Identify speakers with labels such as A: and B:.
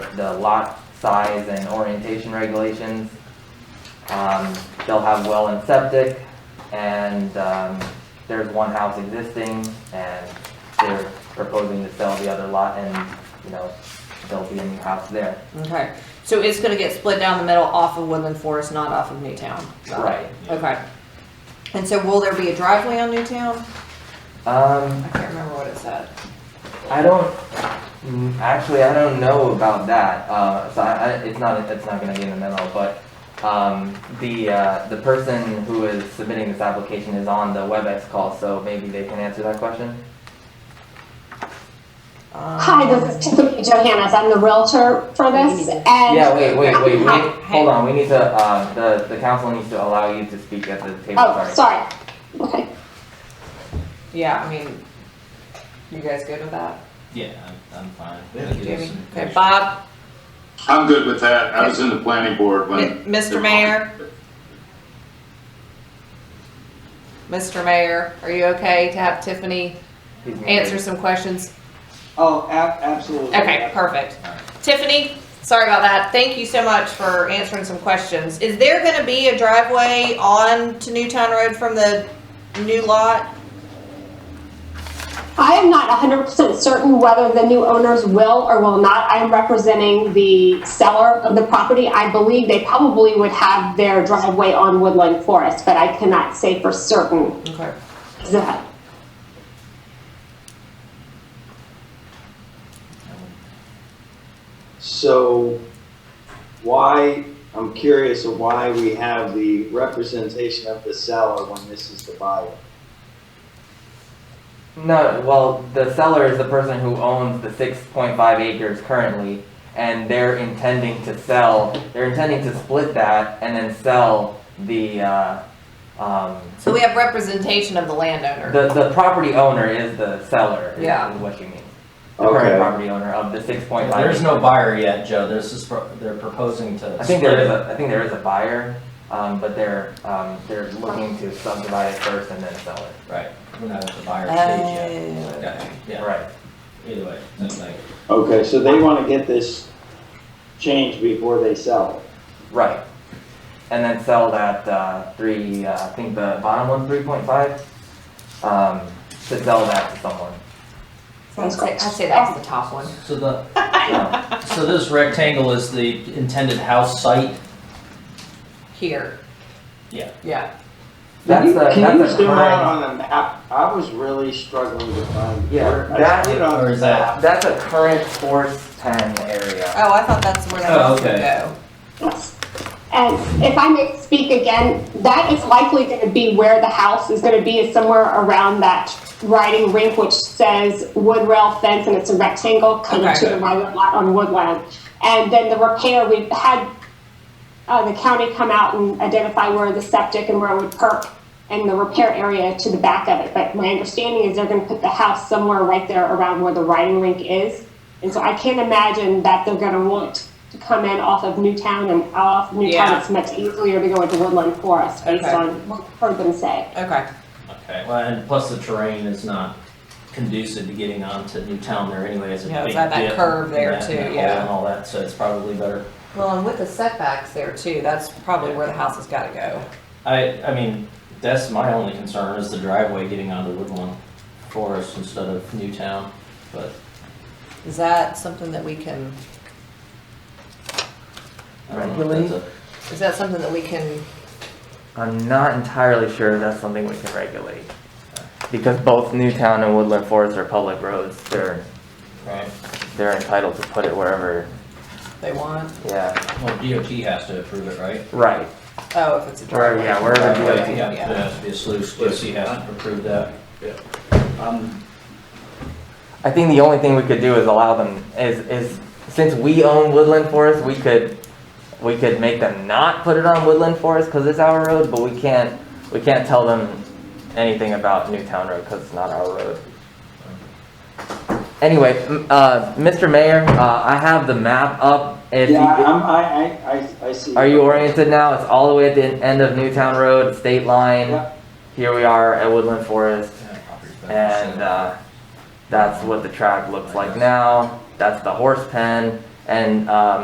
A: the lot size and orientation regulations. Um, they'll have well and septic, and, um, there's one house existing, and they're proposing to sell the other lot, and, you know, there'll be a new house there.
B: Okay, so it's gonna get split down the middle off of Woodland Forest, not off of Newtown? Got it.
A: Right.
B: Okay. And so will there be a driveway on Newtown?
A: Um,
B: I can't remember what it said.
A: I don't, mm, actually, I don't know about that, uh, so I, I, it's not, it's not gonna be in the memo, but, um, the, uh, the person who is submitting this application is on the WebEx call, so maybe they can answer that question?
B: Um,
C: Hi, this is Tiffany Johannes. I'm the realtor for this and.
A: Yeah, wait, wait, wait, we,
C: Hi.
A: need- hold on, we need to, uh, the, the council needs to allow you to speak at the table,
C: Oh,
A: sorry.
C: sorry. Okay.
B: Yeah, I mean, you guys good with that?
D: Yeah, I'm, I'm fine.
E: Yeah.
D: I'll give you
B: Jamie?
D: some
B: Okay,
D: pictures.
B: Bob,
F: I'm good with that. I was in the planning board
B: Mi-
F: when.
B: Mr. Mayor? Mr. Mayor, are you okay to have Tiffany
A: He's muted.
B: answer some questions?
E: Oh, ab- absolutely.
B: Okay, perfect. Tiffany, sorry about that. Thank you so much for answering some questions. Is there gonna be a driveway on to Newtown Road from the new lot?
C: I am not hundred percent certain whether the new owners will or will not. I am representing the seller of the property. I believe they probably would have their driveway on Woodland Forest, but I cannot say for certain
B: Okay.
C: that.
E: So why, I'm curious of why we have the representation of the seller when this is the buyer.
A: No, well, the seller is the person who owns the six point five acres currently, and they're intending to sell, they're intending to split that and then sell the, uh, um,
B: So we have representation of the landowner.
A: the, the property owner is the seller, is-
B: Yeah.
A: is what you mean. The current
E: Okay.
A: property owner of the six point five.
D: There's no buyer yet, Joe. This is, pro- they're proposing to.
A: I think there is
D: split
A: a, I think there is a buyer, um, but they're, um, they're looking to subdivide it first and then sell it.
D: it. Right, we're not at the buyer stage
B: Oh.
D: yet. Yeah, Yeah,
A: Right.
D: either way, that's like,
E: Okay, so they want to get this changed before they sell it.
A: Right. And then sell that uh, three, uh, I think the bottom one, 3.5, um, to sell that to someone.
B: I'd say- I'd say that's the top one.
D: so the,
A: Yeah.
D: so this rectangle is the intended house site?
B: Here.
D: Yeah.
B: Yeah.
A: That's
E: Can you-
A: the-
E: Can you
A: that's the
E: zoom out
A: current-
E: on the map? I was really struggling to find.
A: Yeah,
E: where- I
A: that-
E: see it on
D: or
E: the
D: is that-
E: map.
A: That's a current Force 10 area.
B: Oh, I thought that's where that
D: Oh,
B: was gonna
D: okay.
B: go.
C: Yes. And if I may speak again, that is likely going to be where the house is going to be, is somewhere around that riding rink, which says wood rail fence, and it's a rectangle coming
B: Okay.
C: to the right lot on Woodland. And then the repair, we've had uh, the county come out and identify where the septic and where it would perk and the repair area to the back of it. But my understanding is they're gonna put the house somewhere right there around where the riding rink is. And so I can't imagine that they're gonna want to come in off of Newtown and off
B: Yeah.
C: Newtown. It's much easier to go into Woodland Forest based
B: Okay.
C: on what I've heard them say.
B: Okay.
D: Okay, well, and plus the terrain is not conducive to getting onto Newtown there anyway, it's a
B: Yeah, it's
D: big dip.
B: got that curve
D: and
B: there
D: that-
B: too,
D: and that hole
B: yeah.
D: And all that, so it's probably better.
B: Well, and with the setbacks there too, that's probably where the house has gotta go.
D: I, I mean, that's my only concern is the driveway getting onto Woodlawn Forest instead of Newtown, but
B: Is that something that we can,
D: I don't know if that's a-
B: is that something that we can,
A: I'm not entirely sure that's something we can regulate. Because both Newtown and Woodland Forest are public roads, they're,
D: Right,
A: they're entitled to put it wherever,
B: they want?
A: yeah,
D: well, DOT has to approve it, right?
A: right.
B: Oh, if it's a
A: Where,
B: driveway.
A: yeah, wherever
D: Right,
A: DOT.
D: yeah, There has to be a sluice, DOT has to approve that.
E: Um,
A: I think the only thing we could do is allow them is is since we own Woodland Forest, we could we could make them not put it on Woodland Forest because it's our road, but we can't we can't tell them anything about Newtown Road because it's not our road. Anyway, m- uh, Mr. Mayor, uh, I have the map up. If
E: Yeah,
A: you,
E: I'm, I, I, I, I see.
A: are you oriented now? It's all the way at the end of Newtown Road, state line.
E: Yeah.
A: Here we are at Woodland Forest.
D: Yeah, property's better.
A: uh, And uh, that's what the track looks like now. That's the horse pen. And, um,